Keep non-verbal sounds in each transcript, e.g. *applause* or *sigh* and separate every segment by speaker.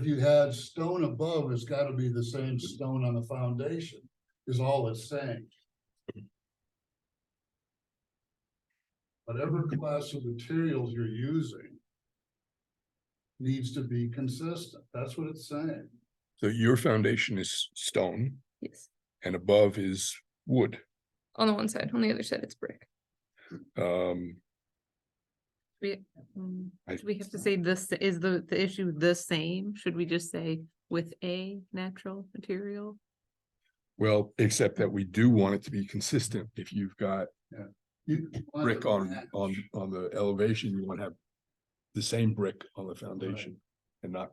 Speaker 1: If you had stone above, it's gotta be the same stone on the foundation, is all it's saying. Whatever class of materials you're using. Needs to be consistent, that's what it's saying.
Speaker 2: So your foundation is stone
Speaker 3: Yes,
Speaker 2: and above is wood.
Speaker 3: on the one side, on the other side, it's brick.
Speaker 2: Um,
Speaker 4: Mm,
Speaker 2: I-
Speaker 4: Do we have to say this, is the, the issue the same? Should we just say with a natural material?
Speaker 2: well, except that we do want it to be consistent. If you've got
Speaker 1: You want
Speaker 2: brick
Speaker 1: to
Speaker 2: on,
Speaker 1: match.
Speaker 2: on, on the elevation, you want to have the same brick on the foundation and not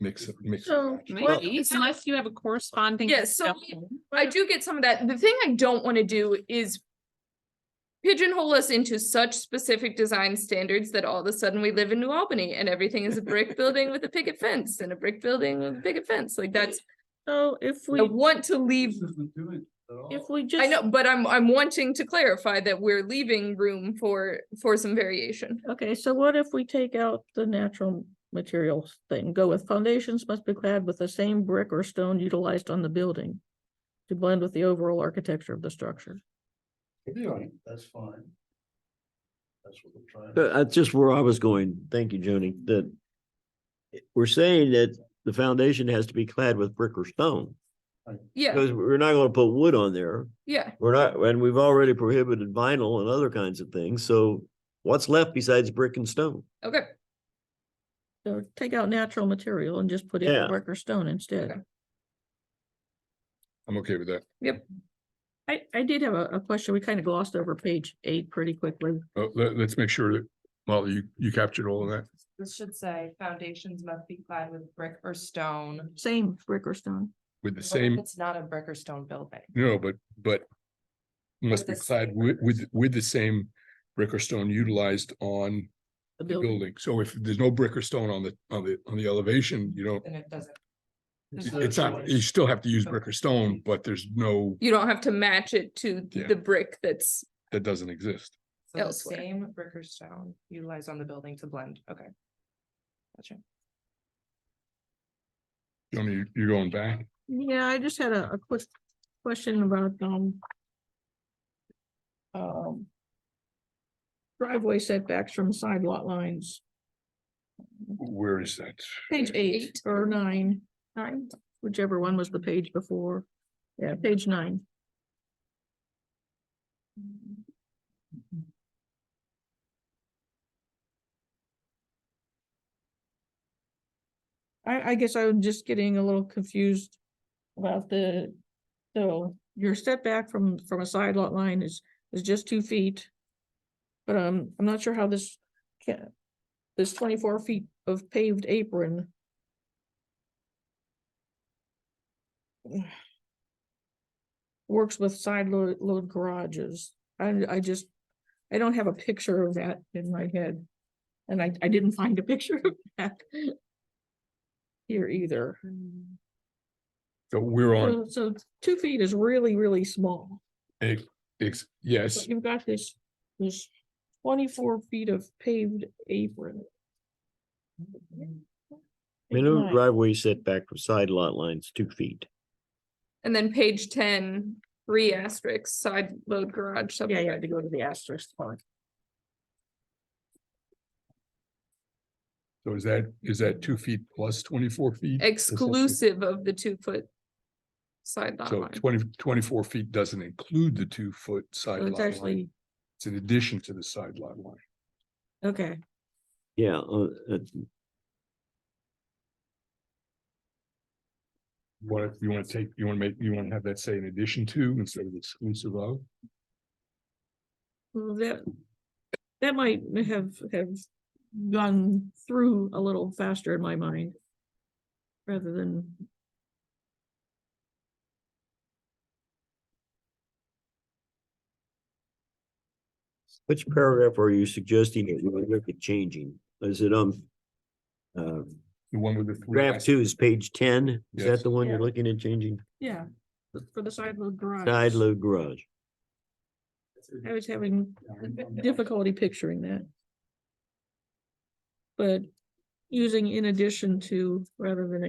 Speaker 2: mix it, mix. and
Speaker 3: So,
Speaker 2: match.
Speaker 3: Well,
Speaker 4: Maybe, unless you have a corresponding.
Speaker 3: Yeah, so we-
Speaker 4: stone.
Speaker 3: I do get some of that. The thing I don't want to do is pigeonhole us into such specific design standards that all of a sudden we live in New Albany and everything is a brick building with a picket fence and a brick building with a picket fence. Like that's,
Speaker 5: So if
Speaker 3: I
Speaker 5: we,
Speaker 3: want to leave.
Speaker 1: This isn't doing it at all.
Speaker 5: if we just.
Speaker 3: I know, but I'm, I'm wanting to clarify that we're leaving room for, for some variation.
Speaker 5: Okay, so what if we take out the natural materials thing, go with foundations must be clad with the same brick or stone utilized on the building. To blend with the overall architecture of the structure.
Speaker 1: Anyway, That's fine. That's what we're trying.
Speaker 6: Uh, That's just where I was going. Thank you, Joni, that we're saying that the foundation has to be clad with brick or stone.
Speaker 3: Yeah,
Speaker 6: Because we're not gonna put wood on there.
Speaker 3: yeah.
Speaker 6: We're not, and we've already prohibited vinyl and other kinds of things, so what's left besides brick and stone?
Speaker 3: Okay.
Speaker 5: So take out natural material and just put in
Speaker 6: Yeah.
Speaker 5: brick or stone instead.
Speaker 2: I'm okay with that.
Speaker 5: I, I did have a, a question. We kind of glossed over page eight pretty quickly.
Speaker 2: Uh, let, us make sure that, Molly, you, you captured all of that.
Speaker 4: This should say foundations must be clad with brick or stone.
Speaker 5: Same brick or stone.
Speaker 2: With the same,
Speaker 4: It's not a brick or stone building.
Speaker 2: no, but, but must be
Speaker 4: With the same
Speaker 2: clad with, with, with the same brick or stone utilized on
Speaker 5: the
Speaker 2: the building. So if there's no brick or stone on the, on the, on the elevation, you don't,
Speaker 4: And it doesn't.
Speaker 2: it's not, you still have to use brick or stone, but there's no,
Speaker 3: You don't have to match it to
Speaker 2: Yeah.
Speaker 3: the brick that's,
Speaker 2: that doesn't exist.
Speaker 4: So the
Speaker 3: elsewhere.
Speaker 4: same brick or stone utilized on the building to blend, okay. Gotcha.
Speaker 2: Joni, you- you're going back?
Speaker 5: Yeah, I just had a, a quick question about, um. Um. Driveway setbacks from side lot lines.
Speaker 2: Where is that?
Speaker 5: Page eight or nine, nine, whichever one was the page before. Yeah, page nine. I, I guess I'm just getting a little confused about the, so your setback from, from a side lot line is, is just two feet. But um, I'm not sure how this can, this twenty-four feet of paved apron. Works with side load, load garages. I, I just, I don't have a picture of that in my head. And I, I didn't find a *laughs* picture of that. Here either.
Speaker 2: So we're on,
Speaker 5: So, so two feet is really, really small.
Speaker 2: ex-
Speaker 5: So
Speaker 2: yes,
Speaker 5: You've got this, this twenty-four feet of paved apron.
Speaker 6: Minimum
Speaker 5: Right.
Speaker 6: driveway setback for side lot lines, two feet.
Speaker 3: and then page ten, three asterisks, side load garage.
Speaker 5: Yeah,
Speaker 3: subdivision.
Speaker 5: yeah, to go to the asterisk part.
Speaker 2: so is that, is that two feet plus twenty-four feet?
Speaker 3: exclusive of the two foot side lot
Speaker 2: So
Speaker 3: line.
Speaker 2: 20 24 feet doesn't include the two-foot side
Speaker 5: So it's
Speaker 2: lot line.
Speaker 5: actually,
Speaker 2: It's in addition to the side lot line.
Speaker 5: okay,
Speaker 6: Yeah, uh, uh,
Speaker 2: What, you wanna take, you wanna make, you wanna have that say in addition to instead of exclusive of?
Speaker 5: well, that, that might have, have gone through a little faster in my mind. Rather than,
Speaker 6: which paragraph are you suggesting that you would look at changing? Is it on uh,
Speaker 2: The one with the. three
Speaker 6: graph
Speaker 2: as-
Speaker 6: two is page ten? Is
Speaker 2: Yes.
Speaker 6: that the one you're
Speaker 5: Yeah.
Speaker 6: looking at changing?
Speaker 5: yeah, for the side load garage.
Speaker 6: Side load garage.
Speaker 5: I was having difficulty picturing that. But using in addition to rather than